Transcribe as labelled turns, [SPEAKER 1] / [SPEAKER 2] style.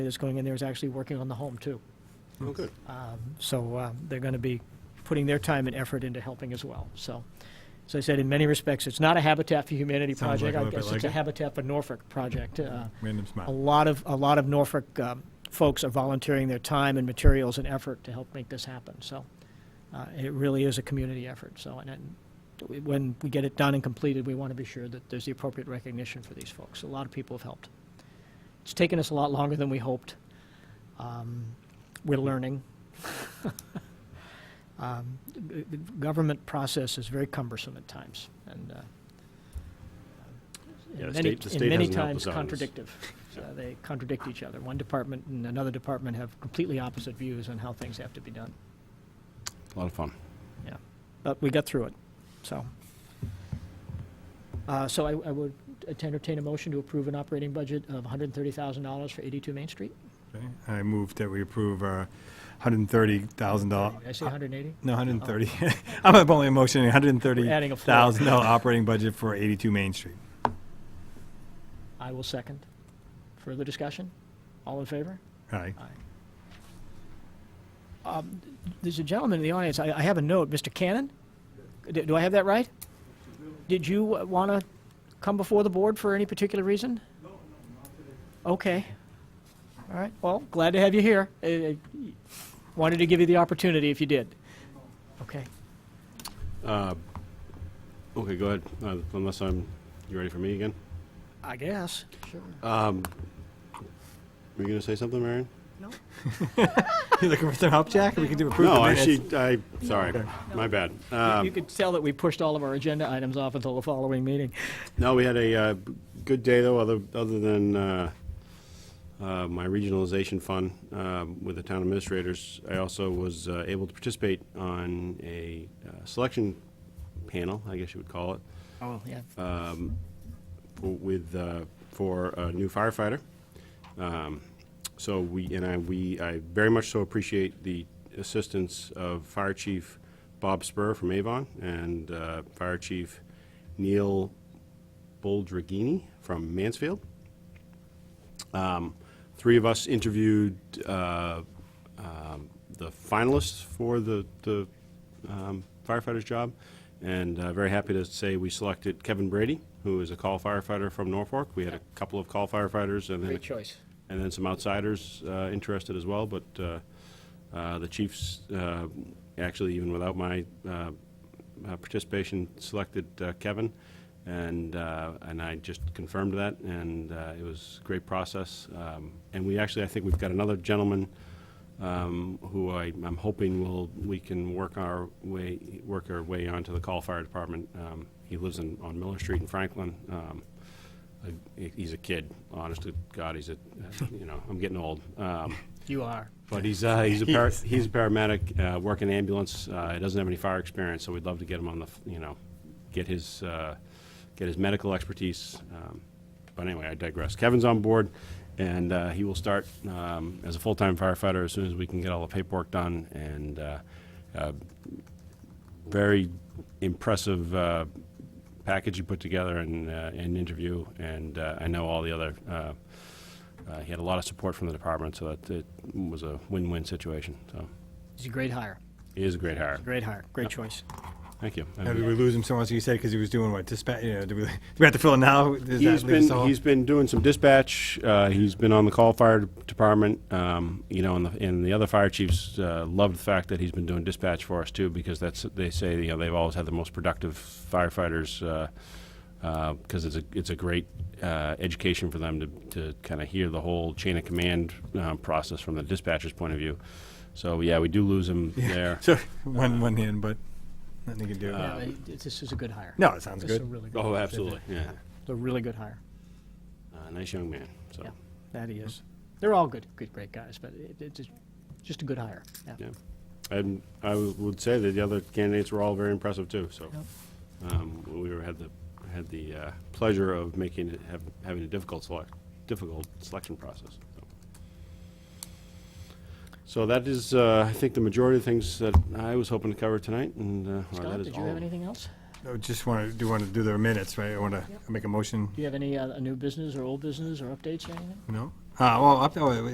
[SPEAKER 1] that's going in there is actually working on the home, too.
[SPEAKER 2] Oh, good.
[SPEAKER 1] So uh, they're going to be putting their time and effort into helping as well. So, as I said, in many respects, it's not a Habitat for Humanity
[SPEAKER 3] Sounds like
[SPEAKER 1] project.
[SPEAKER 3] a
[SPEAKER 1] I
[SPEAKER 3] little bit
[SPEAKER 1] guess it's
[SPEAKER 3] like
[SPEAKER 1] a
[SPEAKER 3] it. Mm-hmm.
[SPEAKER 1] Habitat for Norfolk project. Uh,
[SPEAKER 3] Random
[SPEAKER 1] A
[SPEAKER 3] smile.
[SPEAKER 1] lot of, a lot of Norfolk um, folks are volunteering their time and materials and effort to help make this happen. So uh, it really is a community effort. So, and and we- when we get it done and completed, we want to be sure that there's the appropriate recognition for these folks. A lot of people have helped. It's taken us a lot longer than we hoped. Um, We're learning. Um, g- g- Government process is very cumbersome at times, and uh,
[SPEAKER 2] Yeah, the
[SPEAKER 1] and many,
[SPEAKER 2] state- the
[SPEAKER 1] and
[SPEAKER 2] state
[SPEAKER 1] many
[SPEAKER 2] hasn't helped us
[SPEAKER 1] times
[SPEAKER 2] out on this.
[SPEAKER 1] contradictive. Uh, They contradict each other. One department and another department have completely opposite views on how things have to be done.
[SPEAKER 2] A lot of fun.
[SPEAKER 1] Yeah, but we got through it, so. Uh, So I I would entertain a motion to approve an operating budget of $130,000 for 82 Main Street.
[SPEAKER 3] Okay. I move that we approve uh, our $130,000.
[SPEAKER 1] Did I say 180?
[SPEAKER 3] No, 130. I'm up only motioning
[SPEAKER 1] adding a floor.
[SPEAKER 3] $130,000 operating budget for 82 Main Street.
[SPEAKER 1] I will second. Further discussion? All in favor?
[SPEAKER 3] Aye.
[SPEAKER 1] There's a gentleman in the audience, I I have a note, Mr. Cannon? D- Do I have that right? Did you want to come before the board for any particular reason? No, not today. Okay. All right, well, glad to have you here. Uh, uh, Wanted to give you the opportunity if you did. Okay.
[SPEAKER 2] Okay, go ahead. Uh, unless I'm, you ready for me again?
[SPEAKER 1] I guess. Sure.
[SPEAKER 2] Were you going to say something, Marion?
[SPEAKER 1] No?
[SPEAKER 3] You looking for some help, Jack? We can do approve the
[SPEAKER 2] No, I,
[SPEAKER 3] minutes.
[SPEAKER 2] she, I, sorry, my bad. Uh,
[SPEAKER 1] You could tell that we pushed all of our agenda items off until the following meeting.
[SPEAKER 2] No, we had a uh, b- good day though, other, other than uh, uh, my regionalization fund um, with the town administrators. I also was uh, able to participate on a uh, selection panel, I guess you would call it,
[SPEAKER 1] Oh, yeah.
[SPEAKER 2] for- with, uh, for a new firefighter. Um, So we, and I, we, I very much so appreciate the assistance of Fire Chief Bob Spur from Avon and uh, Fire Chief Neil Boldragini from Mansfield. Um, Three of us interviewed uh, um, the finalists for the the, um, firefighter's job, and uh, very happy to say we selected Kevin Brady, who is a call firefighter from Norfolk. We had a couple of call firefighters and then
[SPEAKER 1] Great
[SPEAKER 2] a
[SPEAKER 1] choice.
[SPEAKER 2] and then some outsiders uh, interested as well. But uh, uh, the Chiefs, uh, actually, even without my uh, uh, participation, selected uh, Kevin, and uh, and I just confirmed that, and uh, it was a great process. Um, and we actually, I think we've got another gentleman um, who I, I'm hoping will we can work our way work our way onto the call fire department. Um, he lives in, on Miller Street in Franklin. Um, I- he's a kid, honest to God, he's a, you know, I'm getting old. Um,
[SPEAKER 1] You are.
[SPEAKER 2] But he's, uh, he's a, par- he's a paramedic, uh, working ambulance, uh, he doesn't have any fire experience, so we'd love to get him on the, f- you know, get his, uh, get his medical expertise. Um, But anyway, I digress. Kevin's on board, and, uh, he will start, um, as a full-time firefighter as soon as we can get all the paperwork done, and, uh, uh, very impressive uh, package you put together and uh, an interview, and uh, I know all the other. Uh, uh, he had a lot of support from the department, so that it was a win-win situation. So
[SPEAKER 1] He's a great hire.
[SPEAKER 2] he is a great hire.
[SPEAKER 1] Great hire. Great choice.
[SPEAKER 2] Thank you.
[SPEAKER 3] Now, Did we lose him so much, you said, because he was doing what, dispatch, you know, do we, do we have to fill it now? Does that
[SPEAKER 2] He's
[SPEAKER 3] leave us
[SPEAKER 2] been
[SPEAKER 3] all-
[SPEAKER 2] he's been doing some dispatch. Uh, he's been on the call fire department. Um, you know, and the, and the other fire chiefs uh, love the fact that he's been doing dispatch for us too, because that's they say you know they've always had the most productive firefighters because it's a it's a great uh, education for them to to kind of hear the whole chain of command um, process from the dispatcher's point of view. So yeah, we do lose him there.
[SPEAKER 3] So, one, one hand, but nothing you can do.
[SPEAKER 2] Um, Uh,
[SPEAKER 1] Yeah, but it- This is a good hire.
[SPEAKER 3] No, it sounds
[SPEAKER 1] This is a
[SPEAKER 3] good.
[SPEAKER 1] really good.
[SPEAKER 2] Oh, absolutely, yeah.
[SPEAKER 1] It's a really good hire.
[SPEAKER 2] Uh, nice young man. So
[SPEAKER 1] Yeah, that
[SPEAKER 2] Mm-hmm.
[SPEAKER 1] he is. They're all good, good, great guys, but it, it's just- just a good hire. Yeah.
[SPEAKER 2] yeah, and I w- would say that the other candidates were all very impressive too. So.
[SPEAKER 1] Yep.
[SPEAKER 2] Um, we were, had the, had the uh, pleasure of making, it have- having a difficult select, difficult selection process. so. So that is, uh, I think, the majority of things that I was hoping to cover tonight, and, uh, well,
[SPEAKER 1] Scott,
[SPEAKER 2] that is
[SPEAKER 1] did you have
[SPEAKER 2] all.
[SPEAKER 1] anything else?
[SPEAKER 3] I Just want to, do want to do the minutes, right? I want to make a motion,
[SPEAKER 1] Do you have any uh, new business or old business or updates or anything?
[SPEAKER 3] no? Uh, well, up, oh,